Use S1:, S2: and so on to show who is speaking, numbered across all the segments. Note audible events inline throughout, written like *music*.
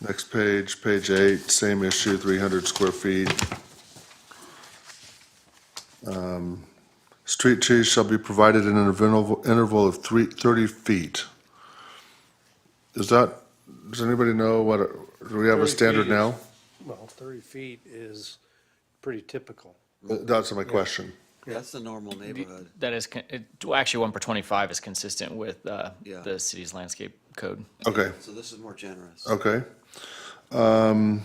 S1: Next page, page eight, same issue, 300 square feet. Um, Street trees shall be provided in an interval interval of three- 30 feet. Is that, does anybody know what, a- do we have a
S2: 30
S1: standard
S2: feet
S1: now?
S2: is- Well, 30 feet is pretty typical.
S1: That's my question.
S3: That's the normal neighborhood.
S4: That is, con- it, well, actually, one per twenty-five is consistent with, uh,
S3: Yeah.
S4: the city's landscape code.
S1: Okay.
S3: So this is more generous.
S1: Okay. Um,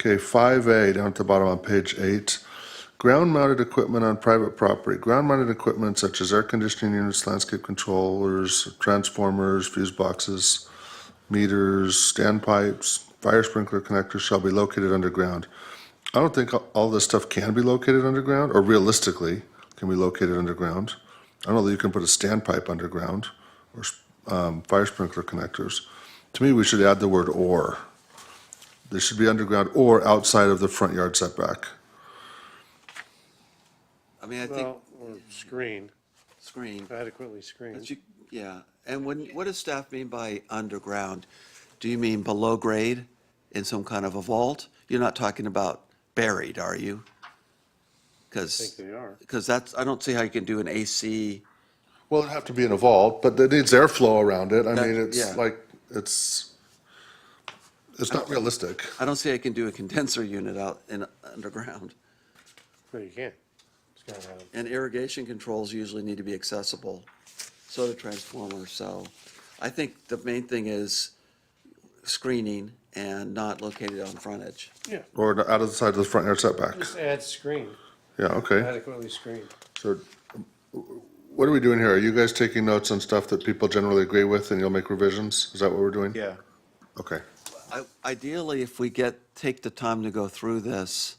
S1: Okay, 5A down at the bottom on page eight. Ground mounted equipment on private property. Ground mounted equipment such as air conditioning units, landscape controllers, transformers, fuse boxes, meters, standpipes, fire sprinkler connectors shall be located underground. I don't think all- all this stuff can be located underground or realistically can be located underground. I don't know that you can put a standpipe underground or um, fire sprinkler connectors. To me, we should add the word or. They should be underground or outside of the front yard setback.
S3: I mean, I think
S2: Well, or screened,
S3: screen,
S2: adequately
S3: but
S2: screened.
S3: you, yeah. And when, what does staff mean by underground? Do you mean below grade in some kind of a vault? You're not talking about buried, are you?
S2: I think
S3: Because,
S2: they are.
S3: because that's, I don't see how you can do an AC.
S1: Well, it'd have to be in a vault, but it needs airflow around it. I
S3: That-
S1: mean, it's
S3: yeah.
S1: like, it's, it's not realistic.
S3: I don't see how you can do a condenser unit out in, underground.
S2: No, you can't. It's got to have,
S3: And irrigation controls usually need to be accessible, so do transformers, so I think the main thing is screening and not located on frontage.
S2: yeah,
S1: Or out of the side of the front yard setback.
S2: just add screen,
S1: Yeah, okay.
S2: adequately screened.
S1: So um, what are we doing here? Are you guys taking notes on stuff that people generally agree with and you'll make revisions? Is that what we're doing?
S5: Yeah.
S1: Okay.
S3: I- Ideally, if we get, take the time to go through this,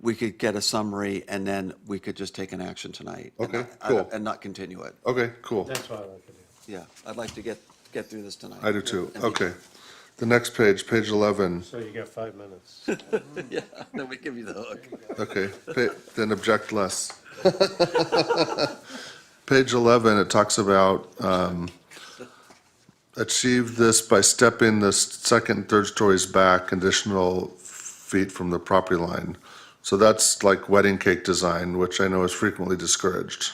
S3: we could get a summary and then we could just take an action tonight. and
S1: Okay,
S3: I-
S1: cool.
S3: And not continue it,
S1: Okay, cool.
S2: That's what I like to do.
S3: yeah, I'd like to get, get through this tonight.
S1: I do too. Okay. The next page, page 11.
S2: So you got five minutes.
S3: *laughs* Yeah, then we give you the hook.
S1: Okay, pa- then object less. *laughs* Page 11, it talks about, um, achieve this by stepping the s- second, and third stories back additional feet from the property line. So that's like wedding cake design, which I know is frequently discouraged.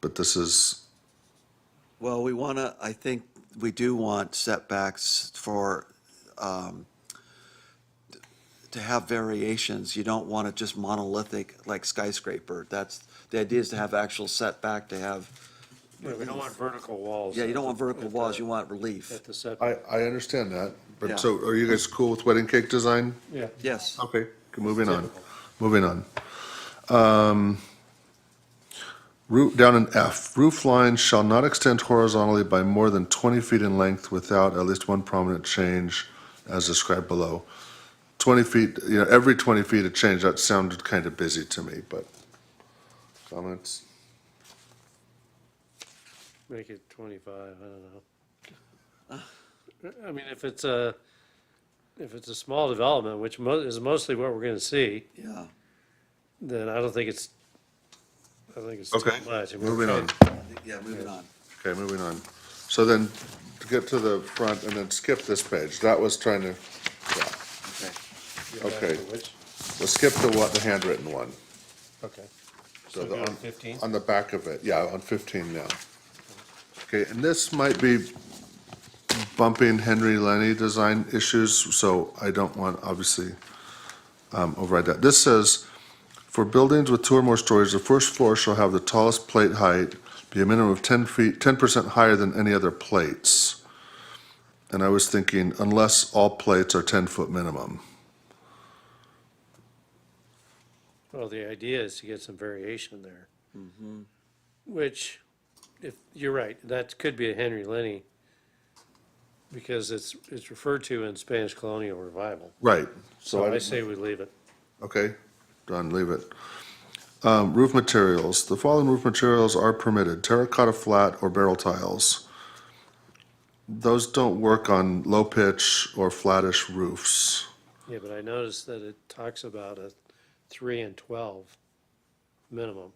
S1: But this is,
S3: Well, we want to, I think we do want setbacks for, um, to have variations. You don't want it just monolithic like skyscraper. That's, the idea is to have actual setback, to have,
S2: Yeah, We don't want vertical walls.
S3: yeah, you *laughs* don't want
S2: at the-
S3: vertical
S2: at the-
S3: walls, you want relief.
S2: At the set,
S1: I, I understand that,
S3: Yeah.
S1: but so are you guys cool with wedding cake design?
S2: yeah.
S3: Yes,
S1: Okay, moving on, moving on. Um, Roof, down in F, roof lines shall not extend horizontally by more than 20 feet in length without at least one prominent change as described below. 20 feet, you know, every 20 feet of change, that sounded kind of busy to me, but comments?
S2: Make it 25, I don't know. I mean, if it's a, if it's a small development, which mo- is mostly what we're going to see,
S3: yeah.
S2: then I don't think it's, I don't think it's
S1: Okay,
S2: too much. I mean,
S1: moving on.
S3: Yeah, moving on.
S1: Okay, moving on. So then, to get to the front and then skip this page, that was trying to, yeah,
S3: Okay.
S1: okay.
S2: Which,
S1: We'll skip the one, the handwritten one.
S2: okay.
S1: So
S2: So
S1: the-
S2: go to 15?
S1: On the back of it, yeah, on 15 now. Okay, and this might be bumping Henry Lenny design issues, so I don't want, obviously, um, override that. This says, "For buildings with two or more stories, the first floor shall have the tallest plate height be a minimum of 10 feet, 10% higher than any other plates." And I was thinking, unless all plates are 10-foot minimum.
S2: Well, the idea is to get some variation there. Which, if, you're right, that could be a Henry Lenny because it's, it's referred to in Spanish colonial revival.
S1: Right.
S2: So I
S1: didn't-
S2: say we leave it.
S1: Okay, done, leave it. Um, Roof materials, the following roof materials are permitted, terracotta flat or barrel tiles. Those don't work on low pitch or flattish roofs.
S2: Yeah, but I noticed that it talks about a three and twelve minimum.